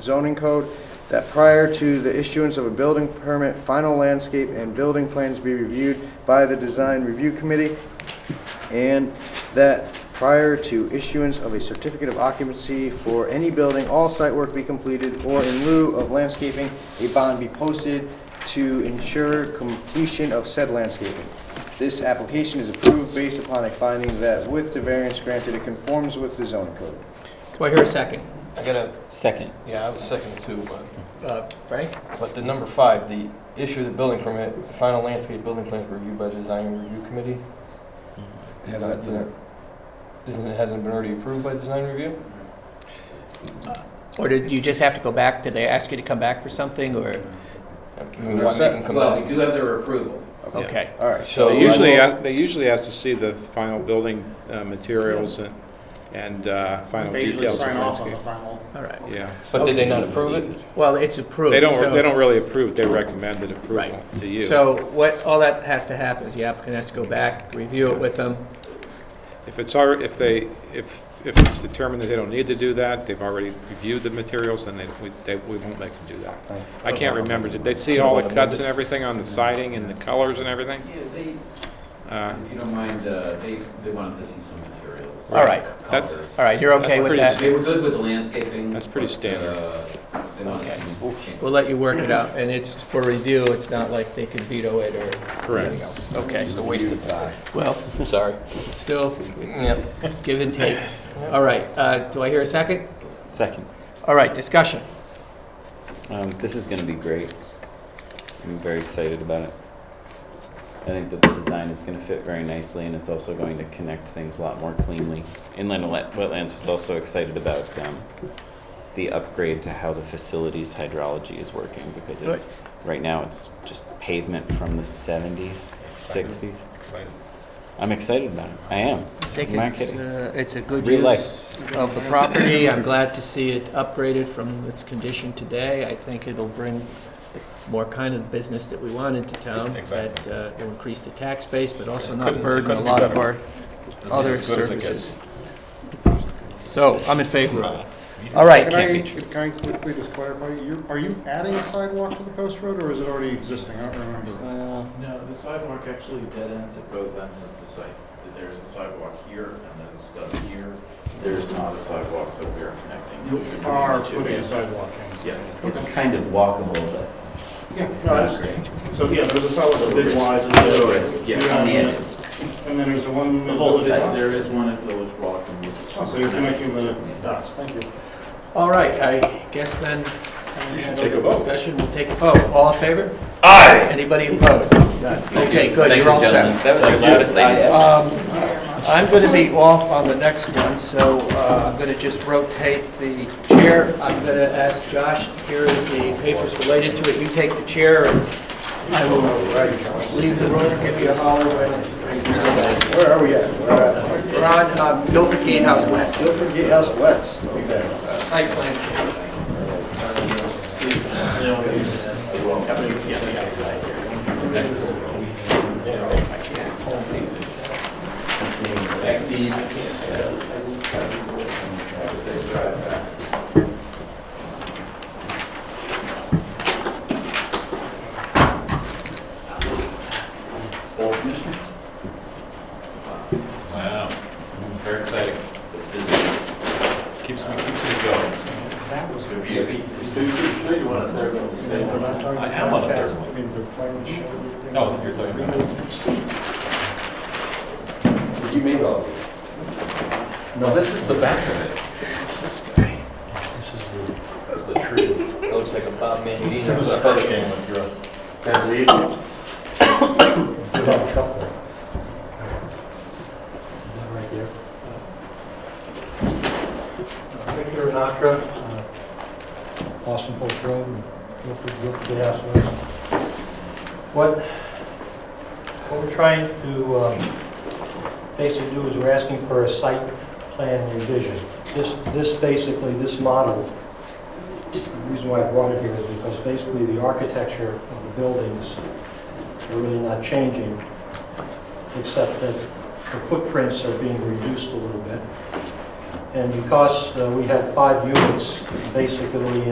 zoning code that prior to the issuance of a building permit, final landscape and building plans be reviewed by the design review committee, and that prior to issuance of a certificate of occupancy for any building, all site work be completed, or in lieu of landscaping, a bond be posted to ensure completion of said landscaping. This application is approved based upon a finding that with the variance granted, it conforms with the zoning code. Do I hear a second? I gotta, Second. yeah, I was second too, but, Uh, Frank? but the number five, the issue of the building permit, the final landscape building plans reviewed by the design review committee? Has that been- Isn't, it hasn't been already approved by design review? Or did you just have to go back, did they ask you to come back for something, or, I mean, We're why set. make them come Well, back? we do have their approval. okay. All right, So They I usually, will- ask- they usually ask to see the final building uh, materials and, and uh, final They usually details of sign off on landscape. the final. All right. Yeah. But did they not approve it? Well, it's approved. They don't, so- they don't really approve, they recommend an Right. approval to you. So what, all that has to happen is the applicant has to go back, review it with them. If it's already, if they, if, if it's determined that they don't need to do that, they've already reviewed the materials, then they, we, they, we won't make them do that. I can't remember, did they see all the cuts and everything on the siding and the colors and everything? Yeah, they, Uh, if you don't mind, uh, they, they wanted to see some materials. All right. That's- Colors. All right, you're okay That's with pretty that? They were good with the landscaping. That's pretty but, uh, They wanted Okay. some change. We'll let you work it out, and it's for review, it's not like they can veto it or, Correct. okay. It's a waste of time. Well, I'm sorry. still, Yep. give and take. All right, uh, do I hear a second? Second. All right, discussion. Um, this is going to be great. I'm very excited about it. I think that the design is going to fit very nicely, and it's also going to connect things a lot more cleanly. Inland Wet- Wetlands was also excited about um, the upgrade to how the facilities hydrology is working because it's right now it's just pavement from the 70s, 60s. Excited. I'm excited about it. I am. I think Not it's, kidding. uh, it's a good Real use of the property. I'm glad to see it upgraded from its condition today. I think it'll bring the more kind of business that we want into town. That uh, will increase the tax base, but also not burden a lot of our other services. So I'm in favor of it. All right, Can can't I, be true. can I quickly just clarify, you, are you adding a sidewalk to the post road, or is it already existing? I don't remember. No, the sidewalk actually dead ends at both ends of the site. There's a sidewalk here and there's a stub here. There's not a sidewalk, so we are You connecting. are putting a sidewalk Yes. It's kind of walkable, but. in. Yeah, no, I just- So, yeah, there's a sidewalk, the big wise. and the- On the edge. And then there's the one. The whole site, sidewalk. there is one at Village Rock and which Oh, So you're connecting the dots, thank you. all right, I guess then. You should take a vote. Discussion, we'll take a vote. All in favor? Aye. Anybody opposed? None. Okay, good, Thank you're you, all set. gentlemen. That was your loudest I have. Um, I'm going to be off on the next one, so uh, I'm going to just rotate the chair. I'm going to ask Josh, here is the papers related to it. You take the chair, and I will leave the room, give you a holler when... where are we at? We're at We're on uh, Guilford Gatehouse West, Guilford Gatehouse West, okay. site plan change. All commissioners? Wow, very exciting. It's busy. Keeps me, keeps me going. That was good. you want a third one? I am on a third one. No, Oh, you're talking about. Did you make all these? No, this is the back of it. This guy. This is the, that's the tree. That looks like a Bob Mandino This is special. hurricane with your. Victor Anatra, uh, Austin Post Road, and Guilford, Guilford Gas West. What, what we're trying to um, basically do is we're asking for a site plan revision. This, this basically, this model, the reason why I brought it here is because basically the architecture of the buildings are really not changing, except that the footprints are being reduced a little bit. And because uh, we had five units, basically